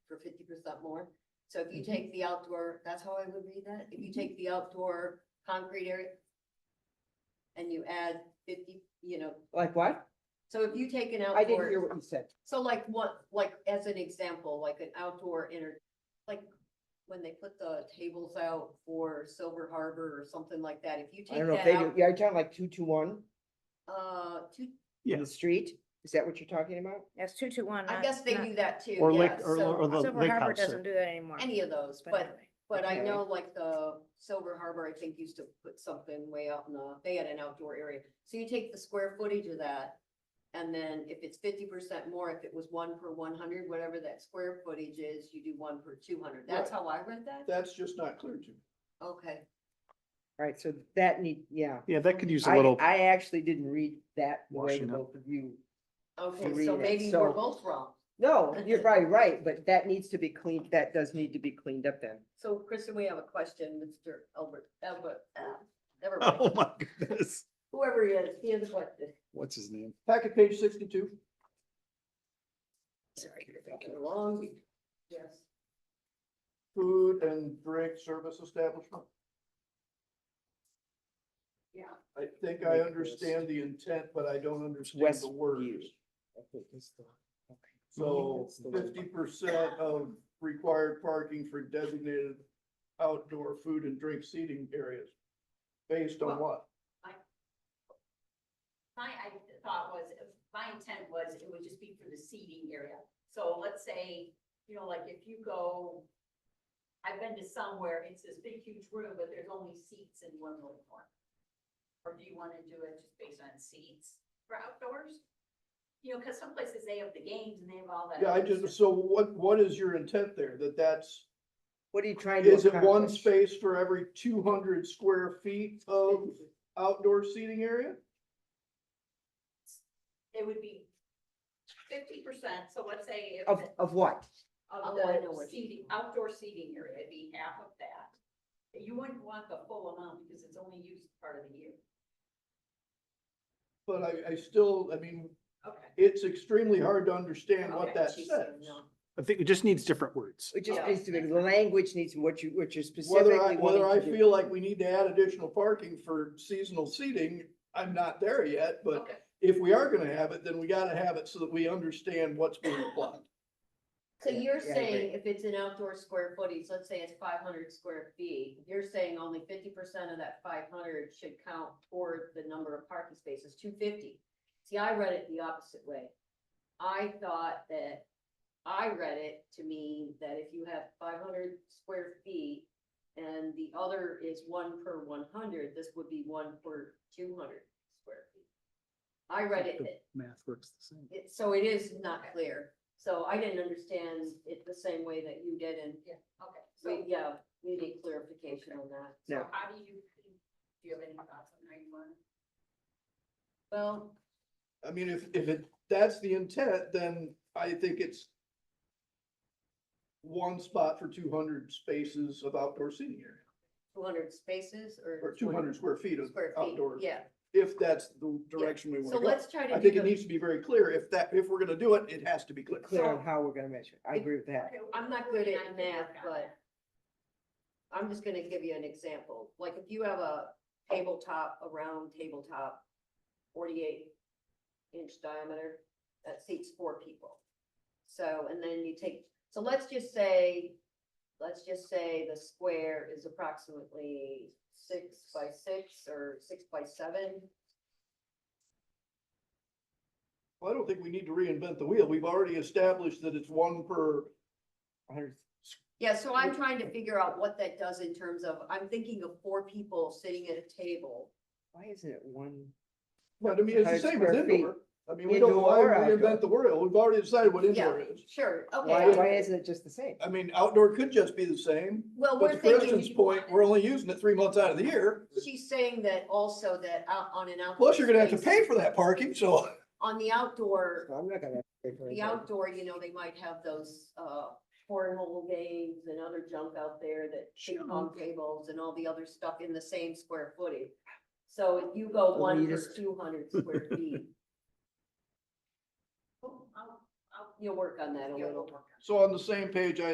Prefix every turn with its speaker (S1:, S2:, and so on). S1: fifty percent more. So if
S2: Mm-hmm.
S1: you take the outdoor, that's how I would read that, if you take the outdoor concrete area. And you add fifty, you know,
S2: Like what?
S1: so if you take an outdoor.
S2: I didn't hear what you said.
S1: So like what, like as an example, like an outdoor inner, like when they put the tables out for Silver Harbor or something like that, if you
S2: I
S1: take
S2: don't know if they
S1: that
S2: do,
S1: out,
S2: yeah, you're talking like two to one
S1: uh, two,
S2: in the street? Is that what you're talking about?
S3: That's two to one.
S1: I
S3: not-
S1: guess they
S3: not-
S1: do that too,
S4: Or
S1: yeah,
S4: lake, or, or
S1: so,
S4: the
S3: Silver
S4: lake
S3: Harbor
S4: house.
S3: doesn't
S4: there.
S3: do that anymore.
S1: any of those,
S3: but
S1: but,
S3: anyway.
S1: but I
S2: Okay.
S1: know like the Silver Harbor, I think used to put something way out in the, they had an outdoor area. So you take the square footage of that, and then if it's fifty percent more, if it was one per one hundred, whatever that square footage is, you do one per two hundred, that's
S5: Right.
S1: how I read that?
S5: That's just not clear to me.
S1: Okay,
S2: Right, so that need, yeah.
S4: Yeah, that could use a
S2: I,
S4: little,
S2: I actually didn't read that the way
S4: Washing up.
S2: both of you.
S1: okay,
S2: read
S1: so
S2: it,
S1: maybe we're
S2: so-
S1: both wrong.
S2: No, you're probably right, but that needs to be cleaned, that does need to be cleaned up then.
S1: So Kristen, we have a question, Mr. Albert, Albert, uh, never mind,
S4: oh my goodness,
S1: whoever he is, he has a question.
S4: what's his name?
S5: Packet page sixty-two.
S1: Sorry, you're taking long. Yes.
S5: food and drink service establishment.
S1: Yeah.
S5: I think I understand the intent, but I don't understand the
S2: Westview.
S5: words. So fifty percent of required parking for designated outdoor food and drink seating areas. Based on what?
S6: My, I thought was, my intent was it would just be for the seating area. So let's say, you know, like if you go, I've been to somewhere, it's this big huge room, but there's only seats in one little corner. Or do you want to do it just based on seats for outdoors? You know, because some places they have the games and they have all that.
S5: Yeah, I
S6: other
S5: just,
S6: stuff.
S5: so what, what is your intent there? That that's,
S2: What are you trying to
S5: is it one
S2: accomplish?
S5: space for every two hundred square feet of outdoor seating area?
S6: It would be fifty percent, so let's say if
S2: Of, of what?
S6: of
S1: Oh, I know
S6: the
S1: what you
S6: seating,
S1: mean.
S6: outdoor seating area, it'd be half of that. You wouldn't want the full amount because it's only used part of the year.
S5: But I, I still, I mean,
S6: Okay.
S5: it's extremely hard to understand
S6: Okay,
S5: what that
S6: she's
S5: says.
S6: saying no.
S4: I think it just needs different words.
S2: It just
S6: Yeah.
S2: needs to be, the language needs, what you, what you're specifically
S5: Whether I,
S2: wanting
S5: whether I
S2: to do.
S5: feel like we need to add additional parking for seasonal seating, I'm not there yet, but
S6: Okay,
S5: if we are gonna have it, then we gotta have it so that we understand what's being applied.
S1: So
S2: Yeah,
S1: you're
S2: yeah, I
S1: saying if it's an outdoor square footage, let's say it's five hundred square feet, you're saying only fifty percent of that five hundred should count toward the number of parking spaces, two fifty. See, I read it the opposite way. I thought that, I read it to mean that if you have five hundred square feet and the other is one per one hundred, this would be one per two hundred square feet. I read it that
S4: Math works the same.
S1: it, so it is not clear. So I didn't understand it the same way that you did and
S6: okay,
S1: we,
S6: so,
S1: yeah, we need clarification on that.
S6: so
S2: No.
S6: how do you, do you have any thoughts on how you want? it?
S1: Well,
S5: I mean, if, if it, that's the intent, then I think it's one spot for two hundred spaces of outdoor seating area,
S1: two hundred spaces or?
S5: or two hundred square feet of
S1: Square feet,
S5: outdoor,
S1: yeah.
S5: if that's the direction we wanna
S1: So
S5: go.
S1: let's try to.
S5: I think
S1: do
S5: it
S1: the-
S5: needs to be very clear. If that, if we're gonna do it, it has to be clear.
S2: Clear on
S1: so-
S2: how we're gonna measure. it. I agree with that.
S6: Okay, we
S1: I'm
S6: can-
S1: not
S6: we
S1: good
S6: can-
S1: at
S6: I can
S1: math,
S6: work on
S1: but-
S6: that.
S1: I'm just gonna give you an example, like if you have a tabletop, a round tabletop, forty-eight inch diameter, that seats four people. So, and then you take, so let's just say, let's just say the square is approximately six by six or six by seven.
S5: Well, I don't think we need to reinvent the wheel. We've already established that it's one per,
S2: A hundred-
S1: Yeah, so I'm trying to figure out what that does in terms of, I'm thinking of four people sitting at a table.
S2: Why isn't it one?
S5: but I mean, it's the
S2: Hundred
S5: same as
S2: square feet.
S5: indoor. I mean, we don't
S2: Indoor
S5: why
S2: or outdoor?
S5: reinvent the wheel. We've already decided what
S1: Yeah,
S5: indoor is.
S1: sure,
S2: Why, why
S1: okay.
S2: isn't it just the same?
S5: I mean, outdoor could just be the same,
S1: Well,
S5: but
S1: we're
S5: to
S1: thinking.
S5: Kristen's point, we're only using it three months out of the year.
S1: She's saying that also that out on an outdoor.
S5: Plus, you're gonna have to
S1: space,
S5: pay for that parking, so.
S1: On the outdoor,
S2: So I'm not gonna. pay for
S1: the
S2: anything.
S1: outdoor, you know, they might have those uh cornhole games and other junk out there that ping pong tables and all the other stuff in the same square footage. So if you go one per
S2: Elitist.
S1: two hundred square feet,
S6: Well, I'll- I'll- Oh,
S1: you'll work on that a
S6: yeah, we'll
S1: little.
S6: work on it.
S5: So on the same page, I